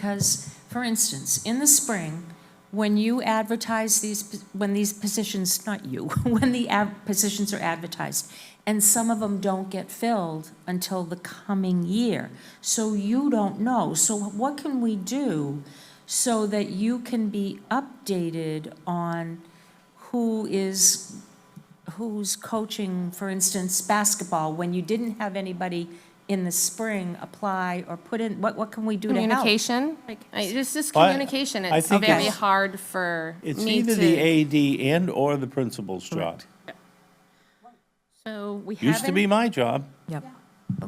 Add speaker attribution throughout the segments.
Speaker 1: because, for instance, in the spring, when you advertise these, p- when these positions, not you, when the ad- positions are advertised, and some of them don't get filled until the coming year. So you don't know. So what can we do so that you can be updated on who is, who's coaching, for instance, basketball, when you didn't have anybody in the spring apply or put in, what, what can we do to help?
Speaker 2: Communication, I- this is
Speaker 3: Well, I-
Speaker 2: communication,
Speaker 3: I
Speaker 2: it's
Speaker 3: think
Speaker 2: very
Speaker 3: it's-
Speaker 2: hard for
Speaker 3: It's
Speaker 2: me
Speaker 3: either the
Speaker 2: to.
Speaker 3: AD and/or the principal's job.
Speaker 2: So we
Speaker 3: Used to be
Speaker 2: haven't,
Speaker 3: my job.
Speaker 4: Yep,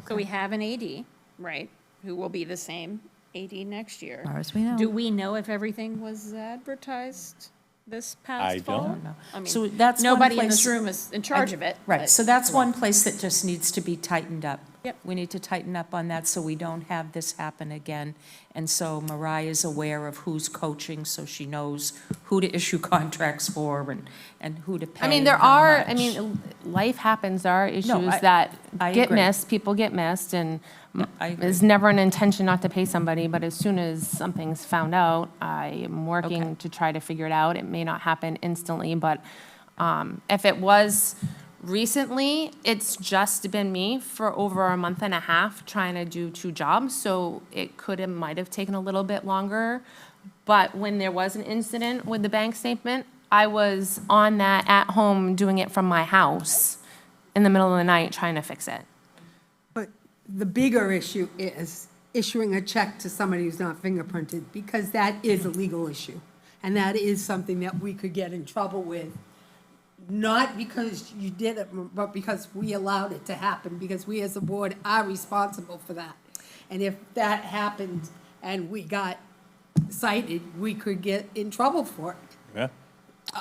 Speaker 2: so we have an AD, right, who will be the same AD next year.
Speaker 4: far as we know.
Speaker 2: Do we know if everything was advertised this
Speaker 3: I
Speaker 2: past
Speaker 3: don't
Speaker 2: fall?
Speaker 3: know.
Speaker 2: I mean,
Speaker 1: So that's one
Speaker 2: Nobody in this
Speaker 1: place-
Speaker 2: room is in charge of it.
Speaker 1: Right,
Speaker 2: but-
Speaker 1: so that's one place that just needs to be tightened up.
Speaker 2: Yep.
Speaker 1: We need to tighten up on that so we don't have this happen again. And so Mariah's aware of who's coaching, so she knows who to issue contracts for and, and who to pay.
Speaker 2: I mean, there
Speaker 1: and how
Speaker 2: are, I
Speaker 1: much.
Speaker 2: mean, life happens, there are issues
Speaker 1: I-
Speaker 2: that
Speaker 1: I
Speaker 2: get
Speaker 1: agree.
Speaker 2: missed, people get missed, and m-
Speaker 1: I agree.
Speaker 2: there's never an intention not to pay somebody, but as soon as something's found out, I am working to try to figure it out. It may not happen instantly, but um, if it was recently, it's just been me for over a month and a half trying to do two jobs, so it could, it might have taken a little bit longer. But when there was an incident with the bank statement, I was on that at home doing it from my house in the middle of the night trying to fix it.
Speaker 5: But the bigger issue is issuing a check to somebody who's not fingerprinted, because that is a legal issue. And that is something that we could get in trouble with, not because you did it, but because we allowed it to happen, because we as a board are responsible for that. And if that happened and we got cited, we could get in trouble for it.
Speaker 3: Yeah.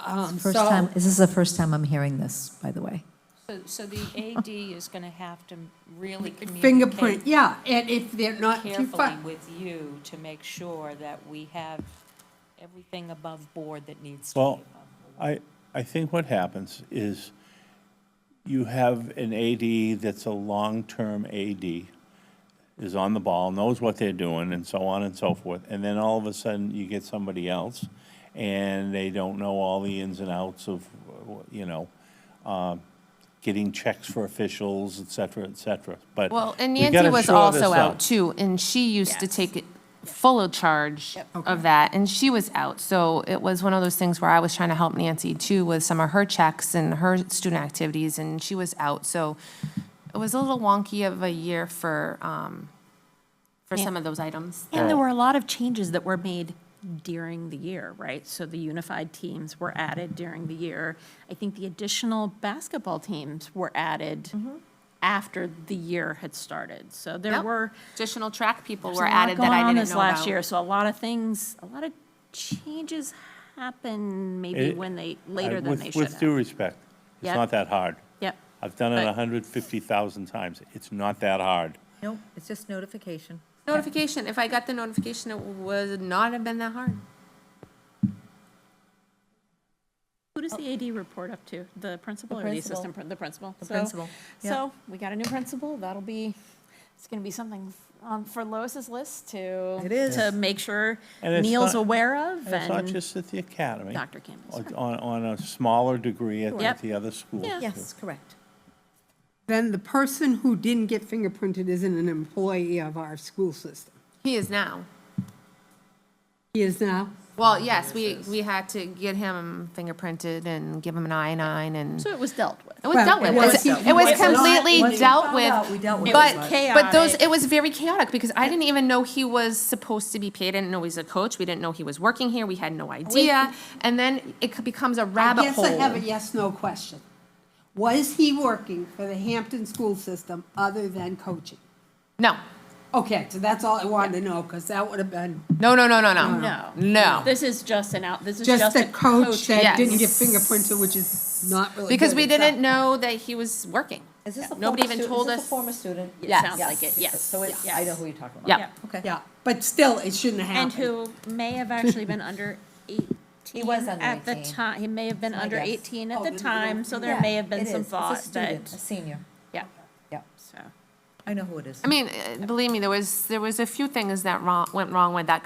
Speaker 5: Um,
Speaker 4: First
Speaker 5: so-
Speaker 4: time, this is the first time I'm hearing this, by the way.
Speaker 1: So, so the AD is gonna have to really
Speaker 5: Fingerprint,
Speaker 1: communicate
Speaker 5: yeah, and if they're not too
Speaker 1: carefully
Speaker 5: far.
Speaker 1: with you to make sure that we have everything above board that needs to be
Speaker 3: Well,
Speaker 1: above.
Speaker 3: I, I think what happens is you have an AD that's a long-term AD, is on the ball, knows what they're doing, and so on and so forth. And then all of a sudden, you get somebody else, and they don't know all the ins and outs of, you know, uh, getting checks for officials, et cetera, et cetera. But
Speaker 2: Well, and
Speaker 3: we
Speaker 2: Nancy
Speaker 3: gotta
Speaker 2: was
Speaker 3: shore this
Speaker 2: also
Speaker 3: up.
Speaker 2: out too, and she used to take it full of charge
Speaker 5: Okay.
Speaker 2: of that, and she was out. So it was one of those things where I was trying to help Nancy too with some of her checks and her student activities, and she was out. So it was a little wonky of a year for, um, for some of those items.
Speaker 6: And there were a lot of changes that were made during the year, right? So the unified teams were added during the year. I think the additional basketball teams were added after the year had started. So there
Speaker 2: Mm-hmm. Yep.
Speaker 6: were.
Speaker 2: Additional track people
Speaker 6: there's
Speaker 2: were
Speaker 6: a lot
Speaker 2: added that
Speaker 6: going
Speaker 2: I
Speaker 6: on
Speaker 2: didn't
Speaker 6: this
Speaker 2: know
Speaker 6: Last year,
Speaker 2: about.
Speaker 6: so a lot of things, a lot of changes happened maybe
Speaker 3: It-
Speaker 6: when they,
Speaker 3: I-
Speaker 6: later than
Speaker 3: with-
Speaker 6: they should
Speaker 3: With due
Speaker 6: have.
Speaker 3: respect, it's
Speaker 6: Yep.
Speaker 3: not that hard.
Speaker 6: Yep.
Speaker 3: I've done it
Speaker 6: But-
Speaker 3: 150,000 times. It's not that hard.
Speaker 4: Nope, it's just notification.
Speaker 2: Notification, if I got the notification, it would not have been that hard.
Speaker 6: Who does the AD report up to? The principal
Speaker 4: Oh. The
Speaker 6: or the
Speaker 4: principal.
Speaker 6: assistant, prin- the principal?
Speaker 4: The
Speaker 6: So-
Speaker 4: principal, yeah.
Speaker 6: So, we got a new principal, that'll be, it's gonna be something um, for Lois's list to.
Speaker 4: It is.
Speaker 6: To make sure
Speaker 3: And it's
Speaker 6: Neil's
Speaker 3: not-
Speaker 6: aware of
Speaker 3: And It's not
Speaker 6: and,
Speaker 3: just Oh. at the academy.
Speaker 6: Dr. Campbell's,
Speaker 3: On-
Speaker 6: right.
Speaker 3: On, on a smaller degree at
Speaker 6: Yep.
Speaker 3: at the other schools.
Speaker 6: Yeah.
Speaker 4: Yes, correct.
Speaker 5: then the person who didn't get fingerprinted isn't an employee of our school system.
Speaker 2: He is now.
Speaker 5: He is now.
Speaker 2: Well, yes, we, we had to get him fingerprinted and give him an I nine and
Speaker 6: so it was dealt with.
Speaker 2: it was
Speaker 5: Well,
Speaker 2: dealt with.
Speaker 5: it
Speaker 2: It was,
Speaker 5: was-
Speaker 2: it was
Speaker 5: It's not-
Speaker 2: completely
Speaker 4: once we
Speaker 2: dealt
Speaker 4: found out, we
Speaker 2: with.
Speaker 4: dealt with
Speaker 2: But,
Speaker 6: it.
Speaker 2: but those,
Speaker 6: Chaotic.
Speaker 2: it was very chaotic because I didn't even know he was supposed to be paid. I didn't know he was a coach. We didn't know he was working here. We had no idea. And then it c- becomes a
Speaker 5: I
Speaker 2: rabbit
Speaker 5: guess I have a
Speaker 2: hole.
Speaker 5: yes/no question. Was he working for the Hampton school system other than coaching?
Speaker 2: No,
Speaker 5: Okay, so that's all I wanted to know, because that would have been
Speaker 2: no, no, no, no, no.
Speaker 6: No.
Speaker 2: No.
Speaker 6: This is just an out, this is
Speaker 5: just
Speaker 6: just
Speaker 5: the
Speaker 6: a
Speaker 5: coach that didn't get
Speaker 2: Yes.
Speaker 5: fingerprinted, which is not really.
Speaker 2: Because
Speaker 5: good
Speaker 2: we
Speaker 5: itself.
Speaker 2: didn't know that he was working.
Speaker 4: Is this a former
Speaker 2: Nobody even
Speaker 4: student, is
Speaker 2: told
Speaker 4: this a
Speaker 2: us-
Speaker 4: former student?
Speaker 6: It sounds like it, yes.
Speaker 4: So it's, I know who you're talking about.
Speaker 2: Yeah.
Speaker 4: Okay.
Speaker 5: Yeah, but still, it shouldn't have
Speaker 6: And
Speaker 5: happened.
Speaker 6: who may have actually been under 18.
Speaker 4: He was under
Speaker 6: At the
Speaker 4: 18.
Speaker 6: time, he may have been
Speaker 4: my
Speaker 6: under
Speaker 4: guess.
Speaker 6: 18 at
Speaker 5: Oh,
Speaker 6: the
Speaker 5: then we
Speaker 6: time,
Speaker 5: don't-
Speaker 6: so there may have been some thought
Speaker 4: student, A
Speaker 6: that,
Speaker 4: senior,
Speaker 6: yeah,
Speaker 4: yeah.
Speaker 6: so.
Speaker 4: I know who it is.
Speaker 2: I mean, uh, believe me, there was, there was a few things that wrong, went wrong with that